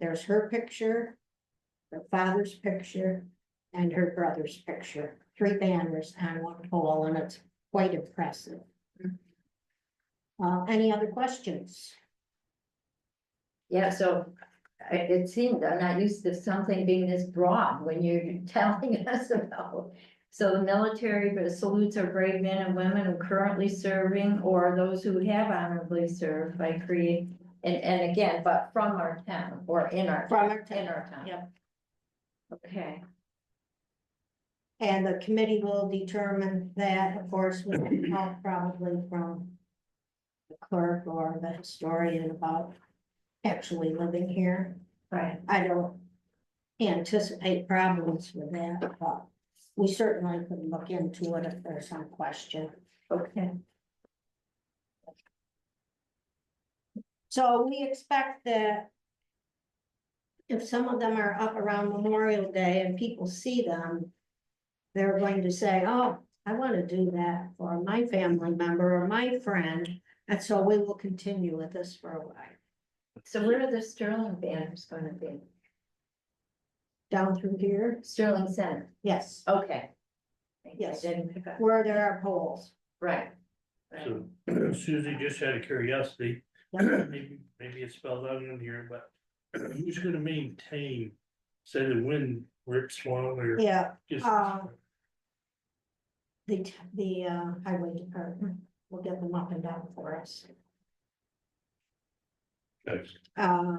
There's her picture, her father's picture, and her brother's picture. Three banners on one pole, and it's quite impressive. Uh, any other questions? Yeah, so I- it seemed, I'm not used to something being this broad when you're telling us about. So the military salutes our brave men and women who currently serving or those who have honorably served by creed. And, and again, but from our town or in our, From our town, in our town. yep. Okay, And the committee will determine that, of course, with help probably from the clerk or the historian about actually living here. right, I don't anticipate problems with that, but we certainly could look into it if there's some question. okay, So we expect that if some of them are up around Memorial Day and people see them, they're going to say, oh, I want to do that for my family member or my friend. And so we will continue with this for a while. so where are the Sterling banners gonna be? Down through here, Sterling Center, yes, okay. I Yes. Didn't pick up, where there are poles. right. right. So Susie just had a curiosity, Yep. maybe, maybe it's spelled out in here, but who's gonna maintain, say the wind rips one or Yeah, just? Uh, the, t- the uh, highway department will get them up and down for us. Okay. Uh,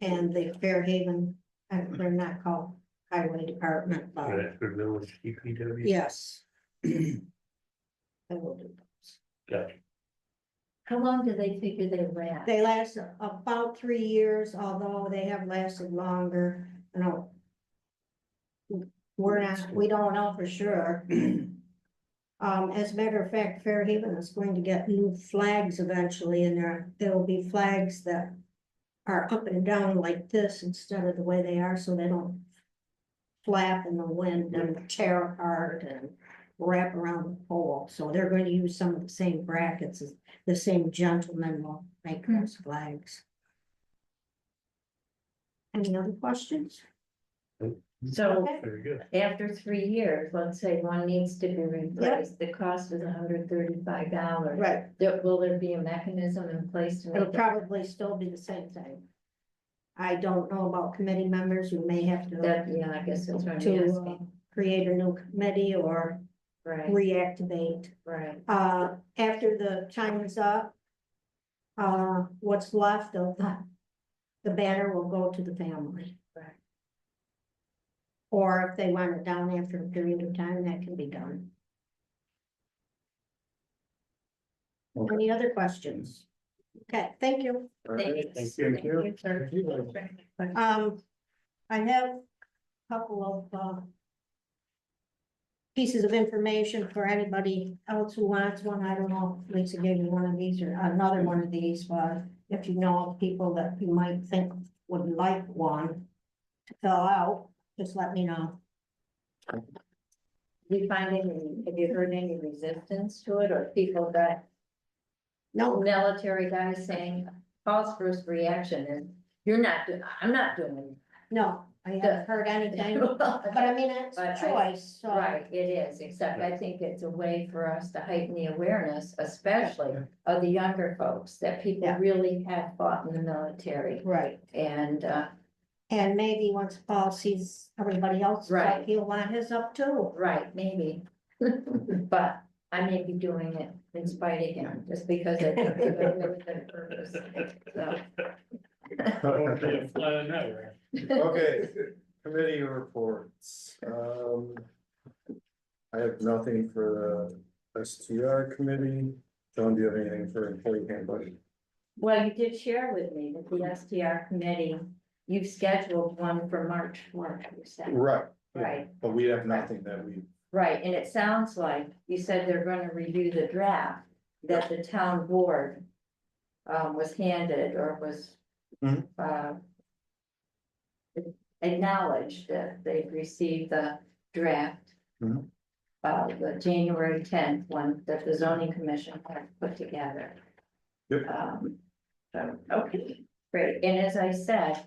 and the Fairhaven, uh, they're not called highway department, but Right, For village E DPW. yes. They will do those. Got it. How long do they figure they last? They last about three years, although they have lasted longer, you know. We're not, we don't know for sure. Um, as a matter of fact, Fairhaven is going to get new flags eventually, and there, there will be flags that. Are up and down like this instead of the way they are, so they don't. Flap in the wind and tear apart and wrap around the pole, so they're going to use some of the same brackets as the same gentleman will make Hmm. those flags. Any other questions? Mhm. So Okay. Very good. after three years, let's say one needs to be replaced, the cost is hundred thirty-five dollars. Right. will there be a mechanism in place to It'll make it? probably still be the same thing. I don't know about committee members, you may have to, That, yeah, I guess that's what I'm to uh, asking, create a new committee or right, reactivate. right, Uh, after the time is up, uh, what's left of the, the banner will go to the family. Right. Or if they want it down after a period of time, that can be done. Okay. Any other questions? Okay, thank you. thanks. Thank you. sir. Thank you. Um, I have a couple of, uh, pieces of information for anybody else who wants one. I don't know if Lisa gave you one of these or another one of these, but if you know of people that you might think would like one to fill out, just let me know. Do you find any, have you heard any resistance to it, or people that, No, military guys saying, Paul's first reaction is, you're not, do- I'm not doing no, I haven't heard anything, it. but I mean, it's a But I- choice, so. Right, it is, except I think it's a way for us to heighten the awareness, especially of the younger folks, that people Yeah. really have fought in the military. Right, And, uh, and maybe once Paul sees everybody else, Right. like, he'll want his up too. right, maybe. But I may be doing it in spite of him, just because I think it's a really good purpose. So, I wanna be a fly on that wall. Okay, committee reports, um. I have nothing for the STR committee, John, do you have anything for employee handbook? Well, you did share with me that the STR committee, you've scheduled one for March fourth, you said. Right. Right. But we have nothing that we, Right, and it sounds like you said they're gonna review the draft that the town board. Um, was handed or was. Mhm. uh, Acknowledged that they've received the draft. Mhm. Uh, the January tenth one that the zoning commission had put together. Yep. Um, so, okay, great, and as I said,